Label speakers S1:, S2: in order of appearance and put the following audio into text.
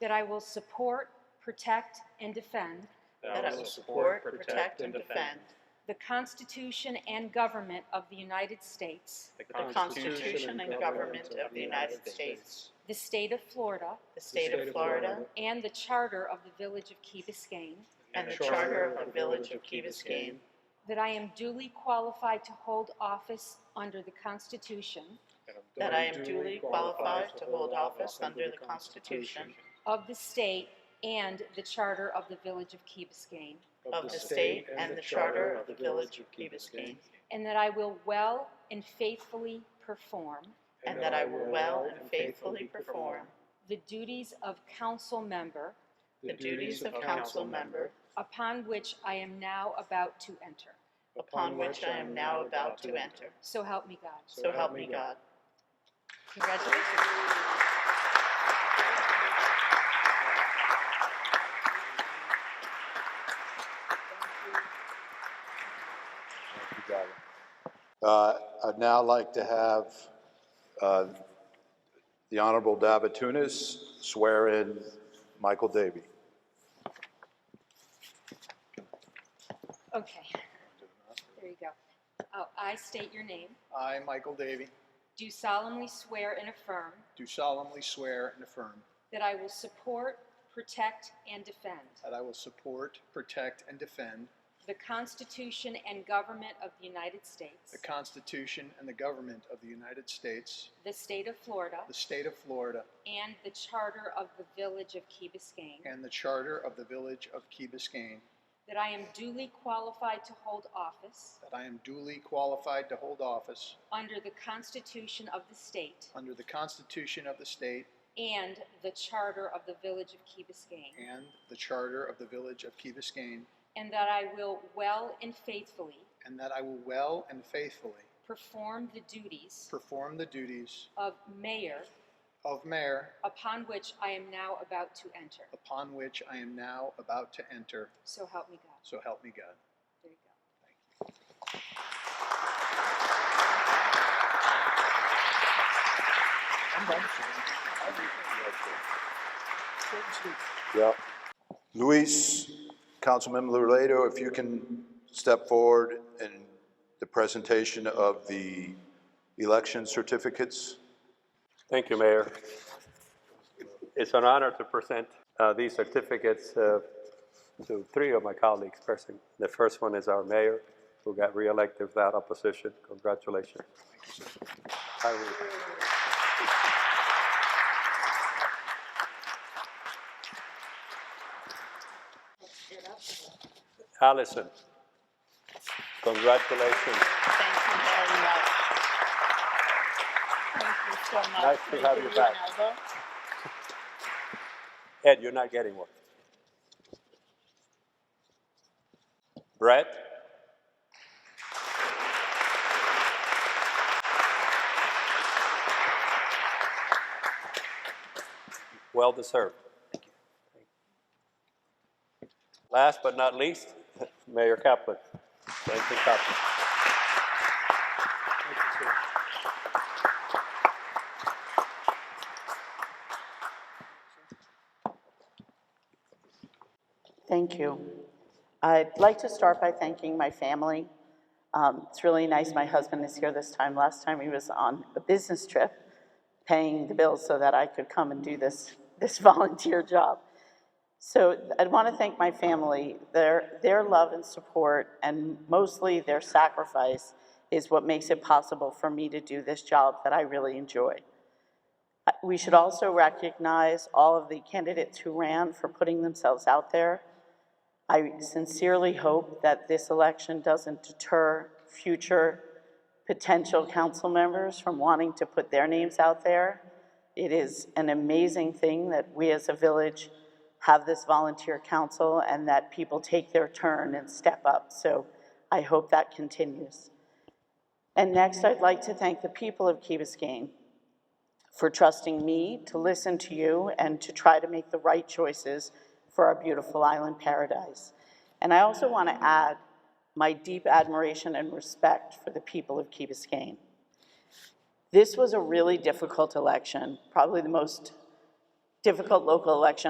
S1: that I will support, protect, and defend
S2: that I will support, protect, and defend
S1: the Constitution and government of the United States,
S2: the Constitution and government of the United States,
S1: the state of Florida,
S2: the state of Florida,
S1: and the charter of the Village of Key Biscayne,
S2: and the charter of the Village of Key Biscayne,
S1: that I am duly qualified to hold office under the Constitution
S2: that I am duly qualified to hold office under the Constitution
S1: of the state and the charter of the Village of Key Biscayne,
S2: of the state and the charter of the Village of Key Biscayne,
S1: and that I will well and faithfully perform
S2: and that I will well and faithfully perform
S1: the duties of council member
S2: the duties of council member
S1: upon which I am now about to enter.
S2: upon which I am now about to enter.
S1: So help me God.
S2: So help me God.
S1: Congratulations.
S3: Thank you, Donna. Uh, I'd now like to have uh, the Honorable Davatunis swear in Michael Davy.
S1: Okay. There you go. Oh, I state your name.
S4: I, Michael Davy,
S1: Do solemnly swear and affirm
S4: do solemnly swear and affirm
S1: that I will support, protect, and defend
S4: that I will support, protect, and defend
S1: the Constitution and government of the United States,
S4: the Constitution and the government of the United States,
S1: the state of Florida,
S4: the state of Florida,
S1: and the charter of the Village of Key Biscayne,
S4: and the charter of the Village of Key Biscayne,
S1: that I am duly qualified to hold office
S4: that I am duly qualified to hold office
S1: under the Constitution of the state
S4: under the Constitution of the state
S1: and the charter of the Village of Key Biscayne,
S4: and the charter of the Village of Key Biscayne,
S1: and that I will well and faithfully
S4: and that I will well and faithfully
S1: perform the duties
S4: perform the duties
S1: of mayor
S4: of mayor
S1: upon which I am now about to enter.
S4: upon which I am now about to enter.
S1: So help me God.
S4: So help me God.
S1: There you go.
S3: Yep. Luis, Councilmember Lurlato, if you can step forward in the presentation of the election certificates.
S5: Thank you, Mayor. It's an honor to present uh, these certificates uh, to three of my colleagues present. The first one is our mayor, who got reelected without opposition. Congratulations. I will- Allison, congratulations.
S2: Thank you very much. Thank you so much.
S5: Nice to have you back. Ed, you're not getting one. Brett? Well deserved. Last but not least, Mayor Kaplan. Thank you, Kaplan.
S2: Thank you. I'd like to start by thanking my family. Um, It's really nice, my husband is here this time. Last time he was on a business trip, paying the bills so that I could come and do this, this volunteer job. So I'd want to thank my family. Their, their love and support, and mostly their sacrifice, is what makes it possible for me to do this job that I really enjoy. Uh, We should also recognize all of the candidates who ran for putting themselves out there. I sincerely hope that this election doesn't deter future potential council members from wanting to put their names out there. It is an amazing thing that we as a village have this volunteer council and that people take their turn and step up. So I hope that continues. And next, I'd like to thank the people of Key Biscayne for trusting me to listen to you and to try to make the right choices for our beautiful island paradise. And I also want to add my deep admiration and respect for the people of Key Biscayne. This was a really difficult election, probably the most difficult local election